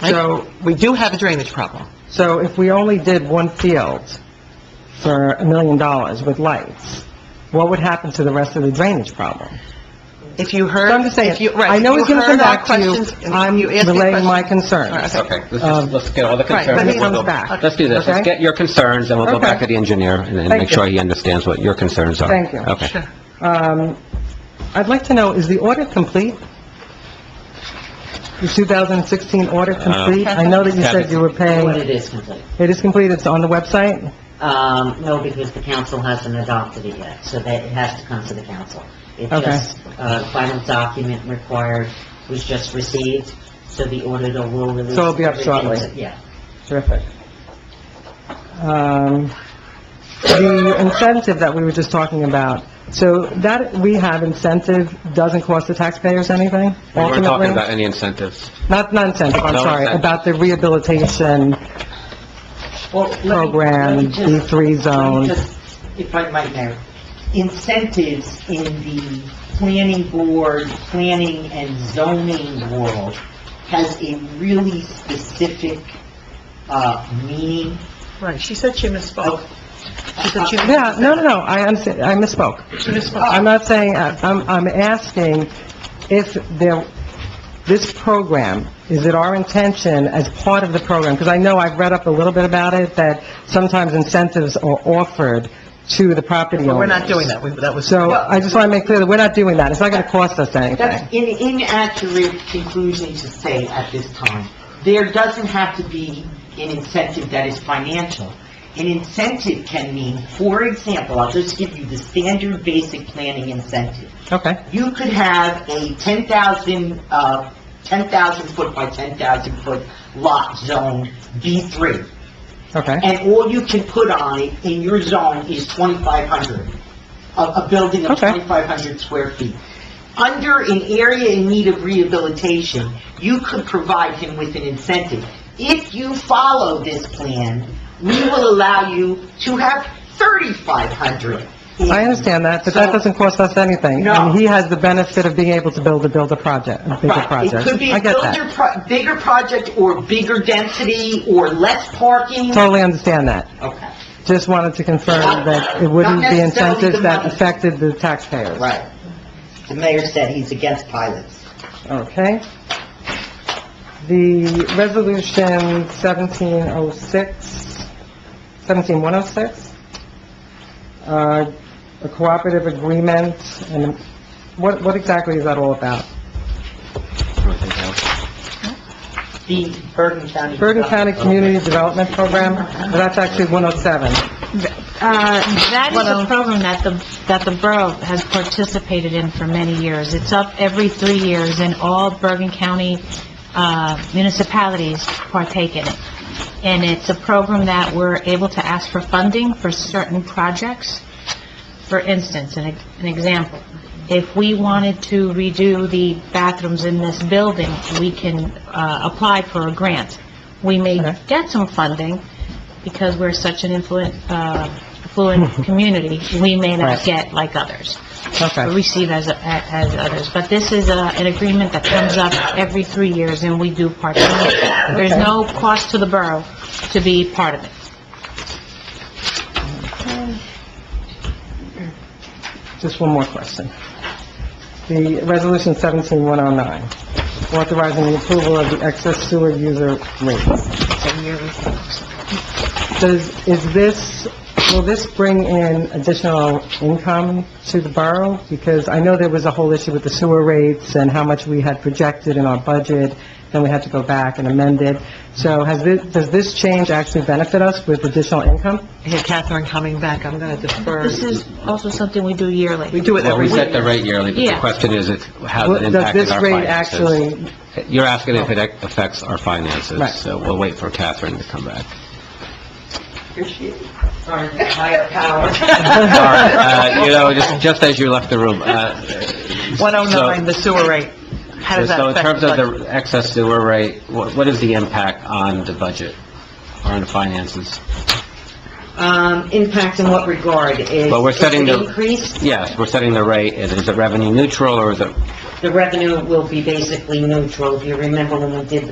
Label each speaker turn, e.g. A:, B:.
A: So,
B: We do have a drainage problem.
A: so if we only did one field for a million dollars with lights, what would happen to the rest of the drainage problem?
B: If you heard...
A: So I'm just saying,
B: if you- right,
A: I know
B: if
A: he's
B: you
A: going to come
B: heard our
A: back to you.
B: questions and
A: I'm
B: you asked me questions-
A: relaying my
B: All right,
A: concerns.
C: Okay, let's
A: Um,
C: just, let's get all the
B: Right,
C: concerns.
B: but he
C: and we'll
A: comes
C: go-
A: back.
C: Let's do this, let's
A: Okay?
C: get your concerns, and we'll go back
A: Okay.
C: to the engineer and and
A: Thank
C: make sure
A: you.
C: he understands what your concerns are.
A: Thank you.
C: Okay.
B: Sure.
A: Um, I'd like to know, is the audit complete? The 2016 audit complete? I know that you said you were
D: What
A: paying,
D: it is complete.
A: it is complete, it's on the website?
D: Um, no, because the council hasn't adopted it yet, so that it has to come to the council. It
A: Okay.
D: just, uh, final document required was just received, so the auditor will release.
A: So it'll be up
D: everything to-
A: shortly.
D: Yeah.
A: Terrific. Um, The incentive that we were just talking about, so that we have incentive doesn't cost the taxpayers anything,
C: We weren't
A: ultimately?
C: talking about any incentives.
A: Not, not incentive, I'm
C: No
A: sorry,
C: incentive.
A: about the rehabilitation
E: Well, let me- let me
A: program,
E: just-
A: the
E: let
A: three
E: me
A: zones.
E: just- If I might, Mayor, incentives in the planning board, planning and zoning world has a really specific, uh, meaning. Uh,
B: Right, she said she misspoke. She said she...
A: Yeah, no, no, no, I understand, I misspoke.
B: She misspoke.
A: I'm not saying, I'm, I'm asking if there, this program, is it our intention as part of the program? Because I know I've read up a little bit about it, that sometimes incentives are offered to the property owners.
B: We're not doing that, We- that was...
A: So I just want to make clear that we're not doing that. It's not going to cost us anything.
E: That's an inaccurate conclusion to say at this time. There doesn't have to be an incentive that is financial. An incentive can mean, for example, I'll just give you the standard basic planning incentive.
A: Okay,
E: you could have a 10,000, uh, 10,000 foot by 10,000 foot lot zone B3,
A: okay,
E: and all you can put on it in your zone is 2,500, a, a building of
A: Okay.
E: 2,500 square feet. Under an area in need of rehabilitation, you could provide him with an incentive. If you follow this plan, we will allow you to have 3,500. in-
A: I understand that, but that
E: So-
A: doesn't cost us anything.
E: No.
A: And he has the benefit of being able to build a, build a project, a bigger
E: Right,
A: project.
E: it could be
A: I
E: a
A: get that.
E: builder, pro- bigger project or bigger density or less parking.
A: Totally understand that.
E: Okay,
A: Just wanted to confirm that it wouldn't
E: Not
A: be
E: necessarily the
A: incentives that
E: money.
A: affected the taxpayers.
E: right. The mayor said he's against pilots.
A: Okay. The resolution 1706, 17106, uh, a cooperative agreement, and what, what exactly is that all about?
E: The Bergen County.
A: Bergen County Community Development Program, that's actually 107.
F: Uh, That is a program that the, that the borough has participated in for many years. It's up every three years, and all Bergen County uh, municipalities partake in it. And it's a program that we're able to ask for funding for certain projects. For instance, an an example, if we wanted to redo the bathrooms in this building, we can uh, apply for a grant. We may
A: Okay.
F: get some funding, because we're such an influent, uh, affluent community, we may
A: Right.
F: not get like others, or
A: Okay,
F: receive as, as others. But this is a, an agreement that comes up every three years, and we do part of it. There's
A: Okay.
F: no cost to the borough to be part of it.
A: just one more question. The resolution 17109, authorizing the approval of the excess sewer user rates.
F: It's a yearly thing.
A: Does, is this, will this bring in additional income to the borough? Because I know there was a whole issue with the sewer rates and how much we had projected in our budget, then we had to go back and amend it. So has this, does this change actually benefit us with additional income?
B: Here, Catherine coming back, I'm going to defer.
F: This is also something we do
B: We
F: yearly.
B: do it
C: Well, we
B: every
C: set the
B: year.
C: rate yearly, but the
F: Yeah.
C: question is, if- how it
A: Does
C: impacted
A: this
C: our
A: rate
C: finances.
A: actually, Oh.
C: You're asking if it affects our finances,
A: Right.
C: so we'll wait for Catherine to come back.
E: Sorry, higher power.
C: All right, uh, you know, just, just as you left the room, uh,
B: 109, the sewer rate. How does that
C: so in
B: affect
C: terms
B: the
C: of
B: budget?
C: the excess sewer rate, what, what is the impact on the budget, or on the finances?
D: Um, impact in what regard is...
C: Well, we're setting
D: is it
C: the-
D: Increase,
C: Yes, we're setting the rate, and is it revenue neutral, or is it
D: the revenue will be basically neutral. If you remember when we did the